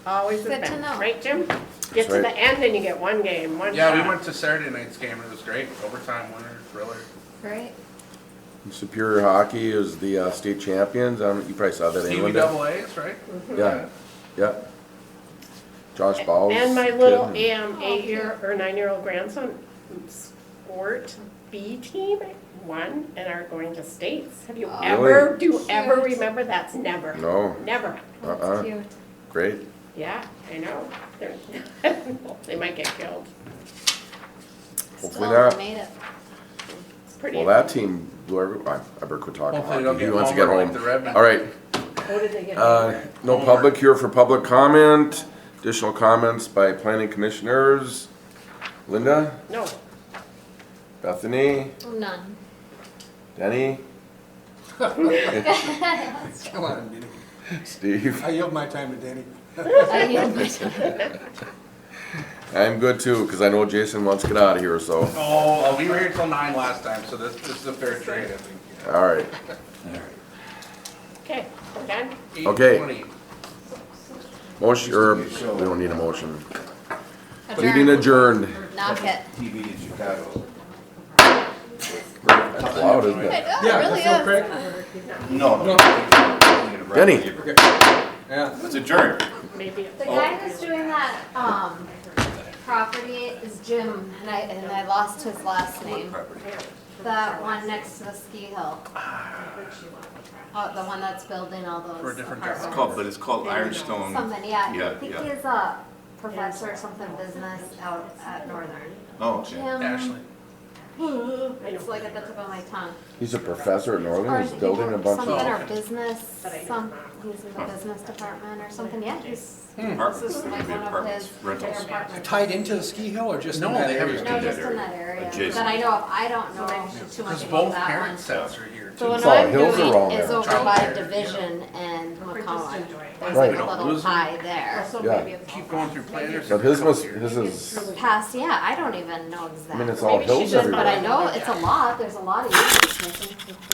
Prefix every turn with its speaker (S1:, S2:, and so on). S1: Always has
S2: Good to
S1: been,
S2: know.
S1: right, Jim? Get to
S3: right.
S1: the end and you get one game, one
S4: Yeah, we
S1: shot.
S4: went to Saturday night's game and it was great. Overtime winner, thriller.
S2: Right.
S3: Superior Hockey is the uh, state champions. I don't, you probably saw that in
S4: Stevie
S3: England.
S4: double A's, right?
S3: Yeah, yeah. Josh Bowles.
S1: And my little
S3: kid.
S2: Oh,
S1: um, eight-year or nine-year-old grandson sport B team won and are going to states. Have you
S2: Oh.
S1: ever, do you ever
S2: Cute.
S1: remember? That's never.
S3: No.
S1: Never.
S3: Uh-uh.
S2: That's cute.
S3: Great.
S1: Yeah, I know. They're, they might get killed.
S3: Hopefully
S2: Still
S3: not.
S2: made it.
S1: It's pretty.
S3: Well, that team blew every, I I better quit talking
S4: Hopefully they don't
S3: hockey. He
S4: get
S3: wants to get
S4: homered
S3: home.
S4: like the Redmen.
S3: All right,
S1: What did they get?
S3: uh, no
S4: Homered.
S3: public here for public comment. Additional comments by planning commissioners. Linda,
S1: No,
S3: Bethany,
S2: Oh, None.
S3: Denny,
S5: Come on, Danny.
S3: Steve.
S5: I yield my time to Danny.
S2: I yield my time.
S3: I'm good too, because I know Jason wants to get out of here, so,
S4: Oh, uh, we were here till nine last time, so this, this is a fair trade, I think.
S3: all right.
S1: okay, we're done.
S4: Eight
S3: Okay.
S4: twenty.
S3: Motion, or, we don't need a motion. Meeting
S2: Adjourn.
S3: adjourned.
S2: Knock it.
S6: TV in Chicago.
S3: That's loud, isn't it?
S2: Oh, it really
S5: that's
S2: is.
S5: no crack.
S6: No. no.
S3: Denny.
S5: Yeah.
S6: It's a jury.
S1: Maybe. it-
S2: The guy who's doing that, um, property is Jim, and I, and I lost his last name. That one next to the ski hill. Oh, the one that's building all those
S4: Ah. For a different job.
S2: apartments.
S6: It's called, but it's called Ironstone.
S2: Something, yeah, I
S6: Yeah,
S2: think
S6: yeah.
S2: he's a professor or something business out at Northern.
S6: Oh, okay.
S4: Ashley.
S2: Jim, it's like at the tip of my tongue.
S3: He's a professor at
S2: Or
S3: Northern,
S2: is
S3: he's
S2: he
S3: building a
S2: doing
S3: bunch
S2: Something
S3: of,
S2: or business,
S1: But I don't
S2: some,
S1: know.
S2: he's in the business department or something, yeah, he's, this
S6: Apartments,
S2: is
S6: they're
S2: like
S6: gonna be
S2: one of his
S6: apartments, rentals.
S2: apartments.
S5: Tied into the ski hill or just in
S4: No,
S5: that
S4: they
S5: area?
S4: haven't.
S2: No,
S6: in
S2: just
S6: that
S2: in
S6: area,
S2: that area,
S6: adjacent.
S2: but I know, of- I don't know too much
S4: Because
S2: about
S4: both
S2: that one.
S4: parent sets are here
S2: The
S4: too.
S2: one
S3: It's all
S2: I'm
S3: hills are all
S2: doing is
S3: there.
S2: over
S4: Child
S2: by
S4: care, yeah.
S2: Division and McCollum, there's like
S3: Right.
S2: a
S4: Don't
S2: little
S4: lose them.
S2: pie there.
S3: yeah.
S4: Keep going through planners.
S3: But his was,
S4: Here.
S3: his is,
S2: Past, yeah, I don't even know exactly.
S3: I mean, it's all
S1: Maybe she
S3: hills
S1: just-
S2: But I
S3: everywhere.
S2: know it's a lot, there's a lot of units missing.